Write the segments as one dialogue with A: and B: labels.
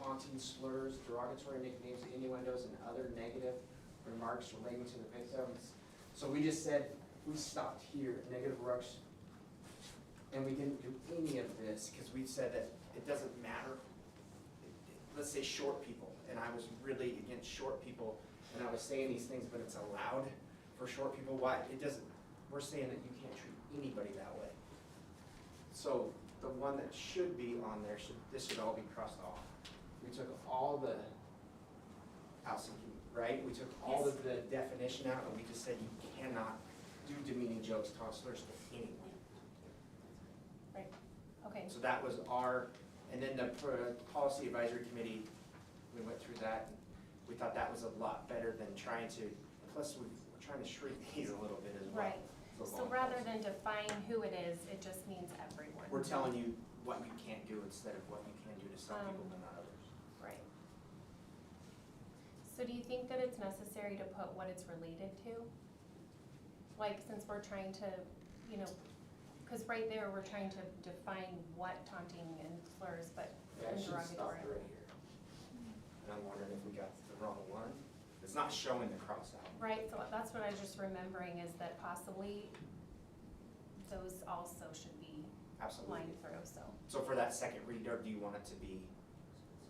A: wanton slurs, derogatory nicknames, innuendos, and other negative remarks relating to the victims. So we just said, we stopped here, negative remarks, and we didn't do any of this, because we said that it doesn't matter. Let's say short people, and I was really against short people, and I was saying these things, but it's allowed for short people, why, it doesn't, we're saying that you can't treat anybody that way. So the one that should be on there should, this should all be crossed off. We took all the housing, right? We took all
B: Yes.
A: of the definition out and we just said you cannot do demeaning jokes, taunt slurs to anyone.
B: Okay,
A: So that was our, and then the uh, policy advisory committee, we went through that. and We thought that was a lot better than trying to, plus we- we're trying to shrink these a little bit as well.
B: right.
A: for
B: So
A: law
B: rather
A: enforcement.
B: than define who it is, it just means everyone.
A: We're telling you what you can't do instead of what you can do to some
B: Um,
A: people but not others.
B: Right. So do you think that it's necessary to put what it's related to? Like, since we're trying to, you know, because right there, we're trying to define what taunting and slurs, but
A: Yeah, I
B: and
A: should have stopped
B: derogatory.
A: right here. And I'm wondering if we got the wrong one. It's not showing the cross out.
B: Right, so that's what I was just remembering is that possibly those also should be
A: Absolutely.
B: lined through, so.
A: So for that second read, or do you want it to be,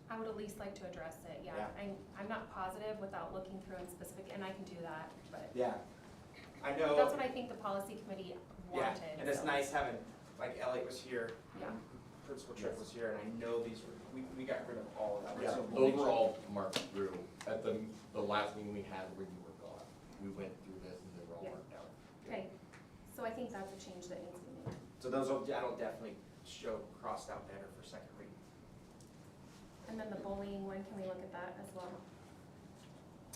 B: I would at least like to address it, yeah.
A: Yeah.
B: I'm, I'm not positive without looking through in specific, and I can do that, but
A: yeah, I know.
B: that's what I think the policy committee
A: Yeah,
B: wanted.
A: and it's
B: so.
A: nice having, like Elliot was here,
B: Yeah.
A: and Principal Tripp was here, and I know these were, we, we got rid of all of that.
C: Yeah,
A: So we'll make sure-
C: overall, marked through, at the, the last meeting we had when you were gone, we went through this and they were all
B: Yeah.
C: marked out.
B: Okay, so I think that's a change that needs to be made.
A: So those, will- that'll definitely show crossed out better for second read.
B: And then the bullying one, can we look at that as well?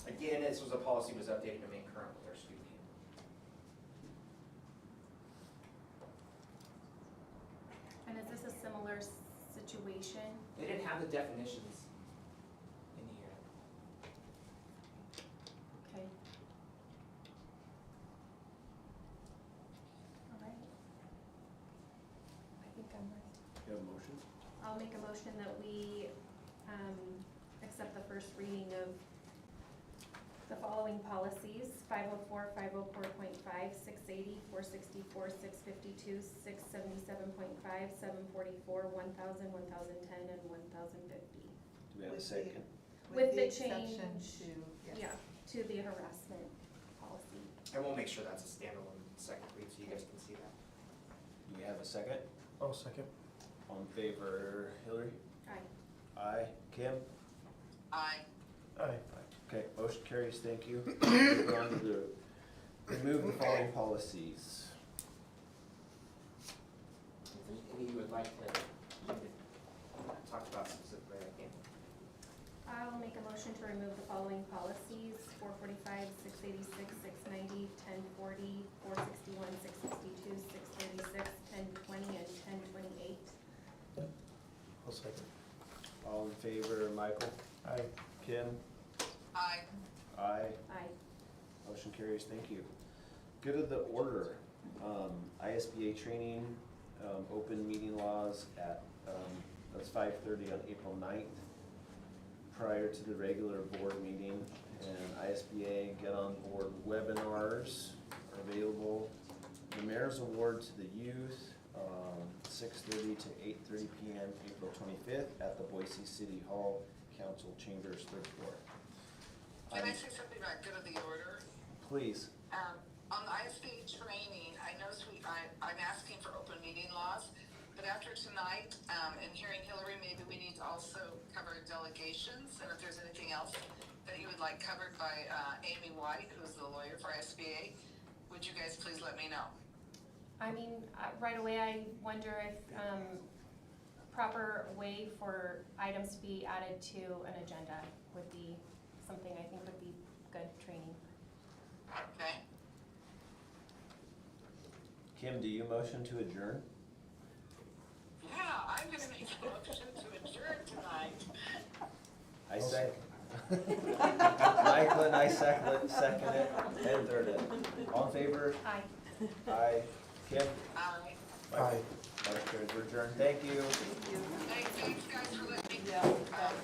A: Again, this was a policy was updated to make current with our student handbook.
B: And is this a similar s- situation?
A: They didn't have the definitions in here.
B: Okay. All right. I think I'm ready.
D: You have a motion?
B: I'll make a motion that we, um, accept the first reading of the following policies, 504, 504.5, 680, 464, six fifty-two, six seventy-seven point five, seven forty-four, one thousand, one thousand ten, and one thousand fifty.
D: Do we have a
E: With the-
D: second?
B: With the
E: exception
B: change.
E: to- yes.
B: Yeah, to the harassment policy.
A: And we'll make sure that's a standalone second read, so you guys can see that.
D: Do we have a second?
F: I'll second.
D: All in favor, Hillary?
B: Aye.
D: Aye. Kim?
E: Aye.
F: Aye.
D: Okay, motion carries, thank you. Move on to the, remove the following policies.
A: If there's any you would like to, you could talk about specifically, I can't.
B: I'll make a motion to remove the following policies, four forty-five, six eighty-six, six ninety, ten forty, four sixty-one, six sixty-two, six thirty-six, ten twenty, and ten twenty-eight.
F: I'll second.
D: All in favor, Michael?
F: Aye.
D: Kim?
E: Aye.
D: Aye.
B: Aye.
D: Motion carries, thank you. Good of the order, um, ISBA training, um, open meeting laws at, um, that's five thirty on April 9th, prior to the regular board meeting, and ISBA Get On Board webinars are available. The mayor's award to the youth, um, six thirty to eight thirty PM, April twenty-fifth, at the Boise City Hall Council Chambers, third floor.
G: Can I
D: Um,
G: say something about good of the order?
D: Please,
G: Um, on the ISBA training, I noticed we, I, I'm asking for open meeting laws, but after tonight, um, and hearing Hillary, maybe we need to also cover delegations, and if there's anything else that you would like covered by, uh, Amy White, who's the lawyer for ISBA, would you guys please let me know?
B: I mean, I- right away, I wonder if, um, proper way for items to be added to an agenda would be something I think would be good training.
G: Okay?
D: Kim, do you motion to adjourn?
G: Yeah, I'm gonna make a motion to adjourn tonight.
D: I
F: I'll
D: second. Michael and I second, second it, and third it. All in favor?
B: Aye.
D: Aye. Kim?
G: Um,
F: Aye.
D: Motion carries. We're adjourned. Thank you.
E: Thank you.
G: thanks, thanks guys for letting me,
E: Yeah.
G: um,